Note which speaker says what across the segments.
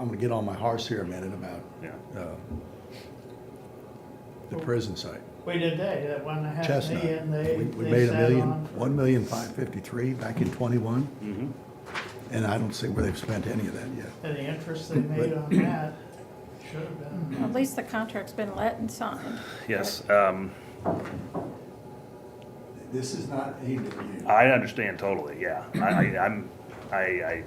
Speaker 1: I'm gonna get on my horse here a minute about
Speaker 2: Yeah.
Speaker 1: uh, the prison site.
Speaker 3: We did that, that one and a half
Speaker 1: Chestnut.
Speaker 3: million, they,
Speaker 1: We we
Speaker 3: they
Speaker 1: made a
Speaker 3: sat
Speaker 1: million,
Speaker 3: on.
Speaker 1: one million five fifty-three back in twenty-one,
Speaker 2: Mhm.
Speaker 1: and I don't see where they've spent any of that yet.
Speaker 3: And the interest they made on that should have been,
Speaker 4: At least the contract's been let and signed.
Speaker 2: Yes, um,
Speaker 1: This is not aimed at you.
Speaker 2: I understand totally, yeah. I, I- I'm, I, I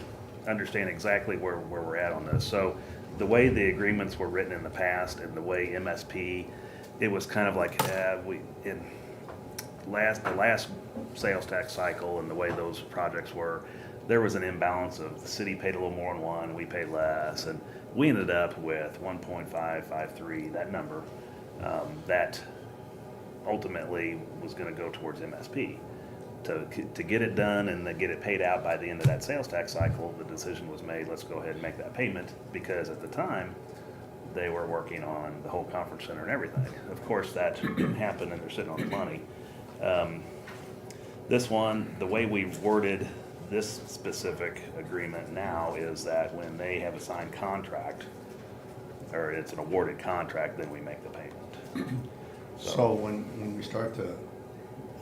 Speaker 2: understand exactly where, where we're at on this. So the way the agreements were written in the past and the way MSP, it was kind of like, uh, we, in last, the last sales tax cycle and the way those projects were, there was an imbalance of the city paid a little more on one, we paid less, and we ended up with one point five five three, that number, um, that ultimately was gonna go towards MSP. To, to get it done and then get it paid out by the end of that sales tax cycle, the decision was made, let's go ahead and make that payment, because at the time, they were working on the whole conference center and everything. Of course, that didn't happen and they're sitting on the money. Um, This one, the way we worded this specific agreement now is that when they have a signed contract, or it's an awarded contract, then we make the payment.
Speaker 1: So when, when we start to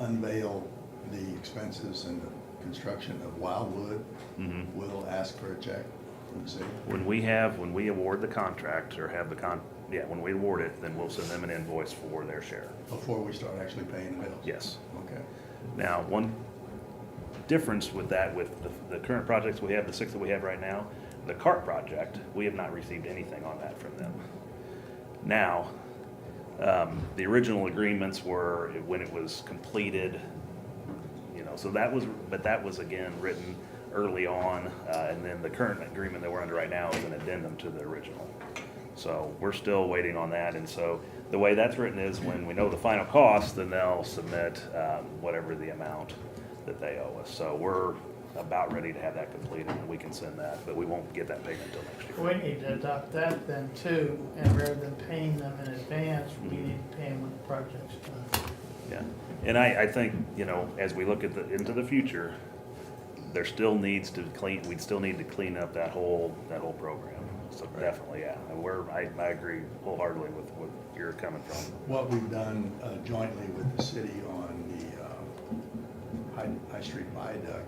Speaker 1: unveil the expenses and the construction of Wildwood, we'll ask for a check from the city.
Speaker 2: When we have, when we award the contract or have the con, yeah, when we award it, then we'll send them an invoice for their share.
Speaker 1: before we start actually paying the bills.
Speaker 2: Yes.
Speaker 1: Okay.
Speaker 2: Now, one difference with that, with the, the current projects we have, the six that we have right now, the CART project, we have not received anything on that from them. Now, um, the original agreements were when it was completed, you know, so that was, but that was again written early on, uh, and then the current agreement that we're under right now is an addendum to the original. So we're still waiting on that, and so the way that's written is when we know the final cost, then they'll submit, um, whatever the amount that they owe us. So we're about ready to have that completed, and we can send that, but we won't get that payment until next year.
Speaker 3: we need to adopt that then too, and rather than paying them in advance, we need to pay them when the project's done.
Speaker 2: Yeah, and I, I think, you know, as we look at the, into the future, there still needs to clean, we'd still need to clean up that whole, that whole program. So definitely, yeah, and we're, I, I agree wholeheartedly with what you're coming from.
Speaker 1: What we've done uh, jointly with the city on the uh, High, High Street viaduct,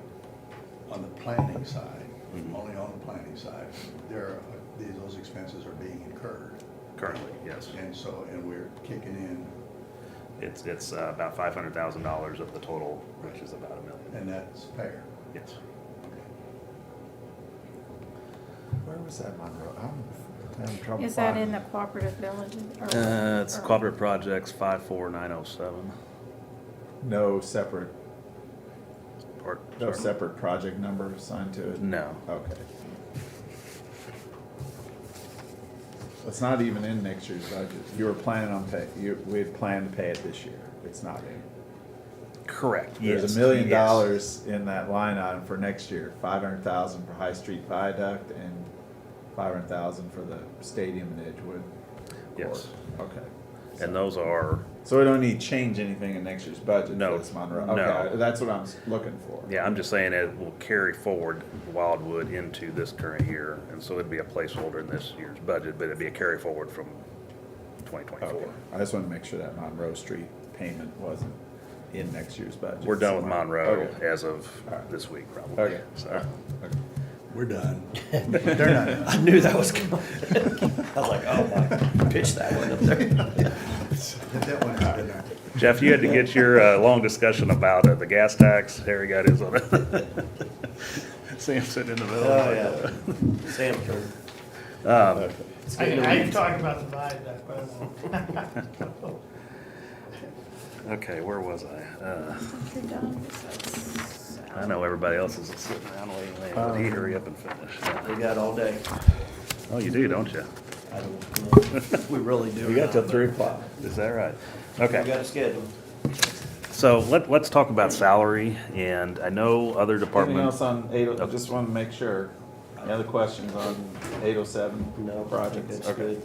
Speaker 1: on the planning side,
Speaker 5: Mm-hmm.
Speaker 2: Mhm.
Speaker 1: only on the planning side, there, are- these- those expenses are being incurred.
Speaker 2: Currently, yes.
Speaker 1: And so, and we're kicking in,
Speaker 2: It's, it's uh, about five hundred thousand dollars of the total, which is about a million.
Speaker 1: and that's fair.
Speaker 2: Yes.
Speaker 6: Where was that Monroe? I'm having trouble.
Speaker 4: Is that in
Speaker 6: finding
Speaker 4: the
Speaker 6: it.
Speaker 4: cooperative village? or-
Speaker 2: Uh,
Speaker 4: or-
Speaker 2: Projects five four nine oh seven.
Speaker 6: No separate,
Speaker 2: Part,
Speaker 6: no separate project number assigned to it?
Speaker 2: No.
Speaker 6: Okay. It's not even in next year's budget. You were planning on pay, you, we had planned to pay it this year. It's not in.
Speaker 2: Correct,
Speaker 6: There's a million dollars in that line item for next year, five hundred thousand for High Street Viaduct and five hundred thousand for the stadium in Edgewood.
Speaker 2: Yes.
Speaker 6: Court. Okay.
Speaker 2: And those are
Speaker 6: So we don't need to change anything in next year's budget
Speaker 2: No.
Speaker 6: for this Monroe?
Speaker 2: No.
Speaker 6: Okay, that's what I'm s- looking for.
Speaker 2: Yeah, I'm just saying it will carry forward Wildwood into this current year, and so it'd be a placeholder in this year's budget, but it'd be a carry forward from twenty
Speaker 6: Okay,
Speaker 2: twenty-four.
Speaker 6: I just wanna make sure that Monroe Street payment wasn't in next year's budget.
Speaker 2: We're done with
Speaker 6: somewhere.
Speaker 2: Monroe
Speaker 6: Okay.
Speaker 2: as of
Speaker 6: All right.
Speaker 2: this week, probably.
Speaker 6: Okay.
Speaker 2: So,
Speaker 6: Okay.
Speaker 1: We're done.
Speaker 5: I knew that was coming. I was like, oh, my, pitch that one up there.
Speaker 1: Get that one out of there.
Speaker 2: Jeff, you had to get your, uh, long discussion about uh, the gas tax, Harry got his on it. Sam sitting in the middle. Um,
Speaker 5: Oh, yeah. Sam turned. It's getting
Speaker 3: I, I
Speaker 5: late.
Speaker 3: talked about the viaduct, but
Speaker 2: Okay, where was I? Uh,
Speaker 4: If you're done, it's like-
Speaker 2: I know everybody else is sitting around waiting, waiting, but
Speaker 6: Uh.
Speaker 2: he hurry up and finish.
Speaker 5: We got all day.
Speaker 2: Oh, you do, don't you?
Speaker 5: I don't know if We really do.
Speaker 6: We got till three o'clock.
Speaker 2: Is that right?
Speaker 5: We
Speaker 2: Okay.
Speaker 5: got a schedule.
Speaker 2: So let, let's talk about salary, and I know other
Speaker 6: Anything else
Speaker 2: departments,
Speaker 6: on eight, I
Speaker 2: Okay.
Speaker 6: just wanna make sure, any other questions on eight oh seven?
Speaker 5: No, I think
Speaker 6: projects?
Speaker 5: that's
Speaker 6: Okay.
Speaker 5: good.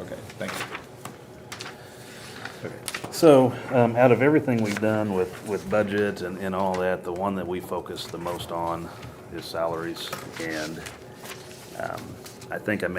Speaker 6: Okay, thank you.
Speaker 2: so, um, out of everything we've done with, with budget and, and all that, the one that we focus the most on is salaries, and, um, I think I made